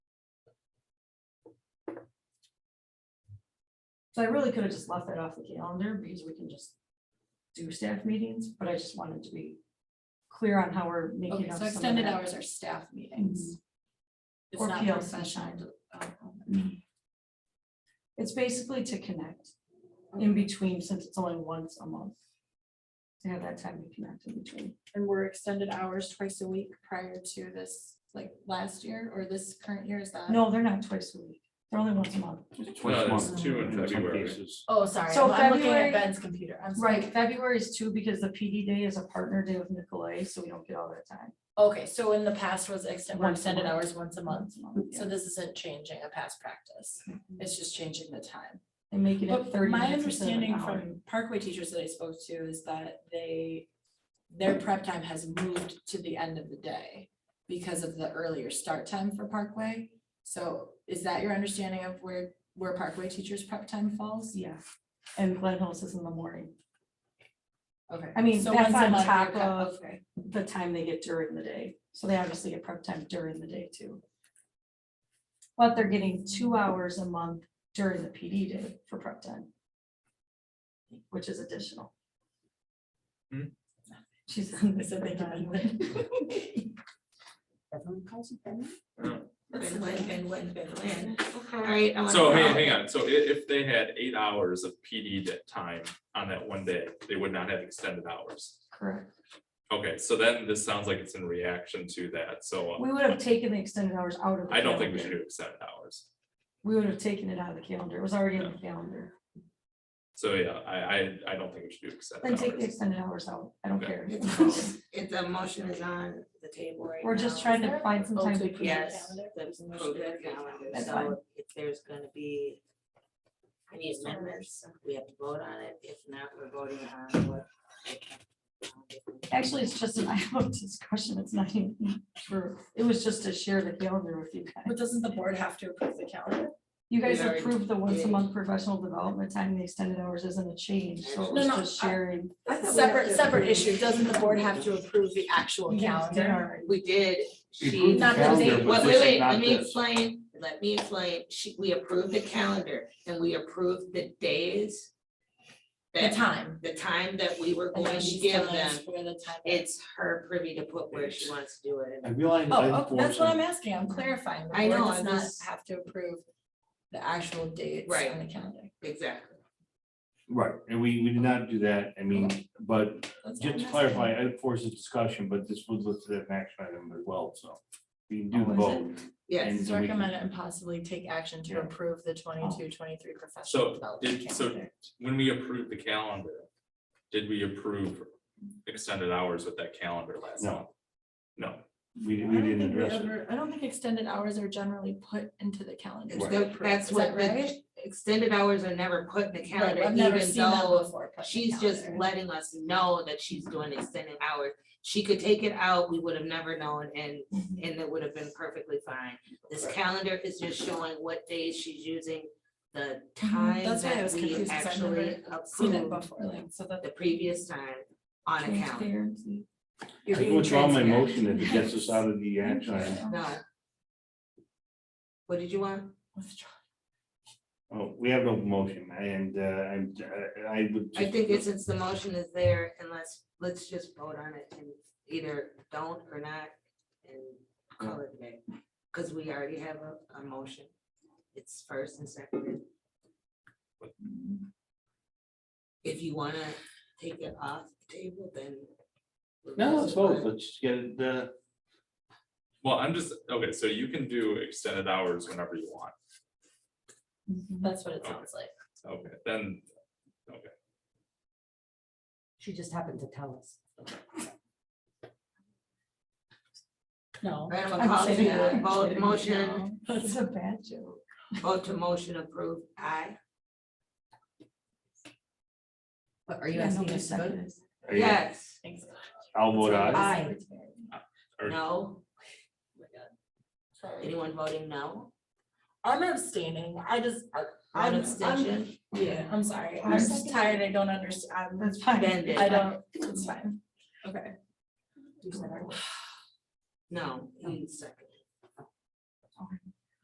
So I really could have just left that off the calendar because we can just do staff meetings, but I just wanted to be clear on how we're making Okay, up so some of extended that. hours are staff meetings. It's Or not PLC professional. Oh, It's basically to connect Mm-hmm. in between, since it's only once a month. To have that time to connect in between. And were extended hours twice a week prior to this, like last year or this current year is that? No, they're not twice a week. They're only once a month. It's No, twice a there's month two in some February. cases. Oh, sorry, So I'm I'm looking February- at Ben's computer, I'm sorry. Right, February is two because the PD day is a partner day with Nicolay, so we don't get all that time. Okay, so in the past was extended, Once a extended month. hours once a month, Yeah. Mm-hmm. so this isn't changing a past practice, it's just changing the time. And making it But thirty my minutes instead of an understanding hour. from Parkway teachers that I spoke to is that they, their prep time has moved to the end of the day because of the earlier start time for Parkway. So is that your understanding of where, where Parkway teachers' prep time falls? Yeah, and Glen Hills is in the morning, Okay. I mean, So that's once a on month they're top cut- of- okay. the time they get during the day, so they obviously get prep time during the day too. But they're getting two hours a month during the PD day for prep time. Which is additional. Hmm. She's. I said they can- Everyone calls it No. That's when, Ben, when, Ben, when. All right. I wanna So hey, follow. hang on, so i- if they had eight hours of PD that time on that one day, they would not have extended hours. Correct, Okay, so then this sounds like it's in reaction to that, so we would have taken the extended hours out of. the I don't think we should calendar. do extended hours. We would have taken it out of the calendar, it was already on the calendar, So yeah, I I I don't think we should do then take extended the hours. extended hours out, I don't Okay. care. It's on- It, the motion is on the table right now. We're just trying to there? find some time to Okay. Yes. There's a the motion. program calendar, That's so fine. If there's gonna be any amendments, we have to vote on it. If not, we're voting on what. Actually, it's just an item of discussion. It's not even true. It was just to share the calendar with you guys. But doesn't the board have to approve the calendar? You guys We already approved the once a did. month professional development time, the extended hours isn't a change, so it was No, no, just I- sharing. Separate, separate issue, doesn't the board have to approve the actual calendar? We did, We she. approved the Not that they- Wait, calendar, but wait, this is wait, not let me this. explain, let me explain, she, we approved the calendar and we approved the days. The that- time. The time that we were And going then to she's give telling us them, Where the time. is. it's her privy to put where she wants to do it. And we only. Oh, oh, that's what I'm asking, I'm clarifying, the I board know, does I'm not just- have to approve the actual dates Right. on the calendar. Exactly. Right, and we, we did not do that, I mean, but That's all just to I'm clarify, asking. it forces discussion, but this was listed as an action item as well, so. We can do Oh, the is vote. Yes, and It's so we can- recommended and possibly take action to Yeah. approve the 22-23 So professional development did, so calendar. when we approved the calendar, did we approve extended hours with that calendar last No. month? No, We, I we don't didn't think we address it. ever- I don't think extended hours are generally put into the calendar. it's Right. the- that's Is what that the right? extended hours are never put in the calendar, Right, I've never even seen that though before. put in the she's just calendar. letting us know that she's doing extended hours. She could take it out, we would have never known and, Mm-hmm. and it would have been perfectly fine. This calendar is just showing what days she's using, the time Mm-hmm. That's why I that was we confused, 'cause I've never actually Seen it approved before, like, so that. the previous time on a calendar. Transparency. you're I being withdraw my transparent. motion if it gets us out of the action item. No. What did you want? Withdraw. Oh, we have no motion and uh, I'm, I- I would. I just- think it's, since the motion is there, unless, let's just vote on it and either don't or not and call it there. Because we already have a, a motion. It's first and second. If you wanna take it off the table, then. we'll No, let's just vote, vote. let's get it, uh, well, I'm just, okay, so you can do extended hours whenever you want, Mm-hmm. That's what it Okay. sounds like. okay, then, She just happened to tell us. No. Right, I'm gonna I'm call kidding. to vote, motion, No. It's a bad joke. vote to motion approved, aye. But are you Yeah, asking nobody us to vote? seconded it. are you- Yes, I'll vote aye. aye, or- no, Oh Sorry. anyone voting no? I'm abstaining, I just, I- One I'm- abstention, I'm- Yeah, I'm sorry, I I'm just second. tired, I don't understand, That's fine. Ben did. I don't, it's fine, okay. No, he seconded.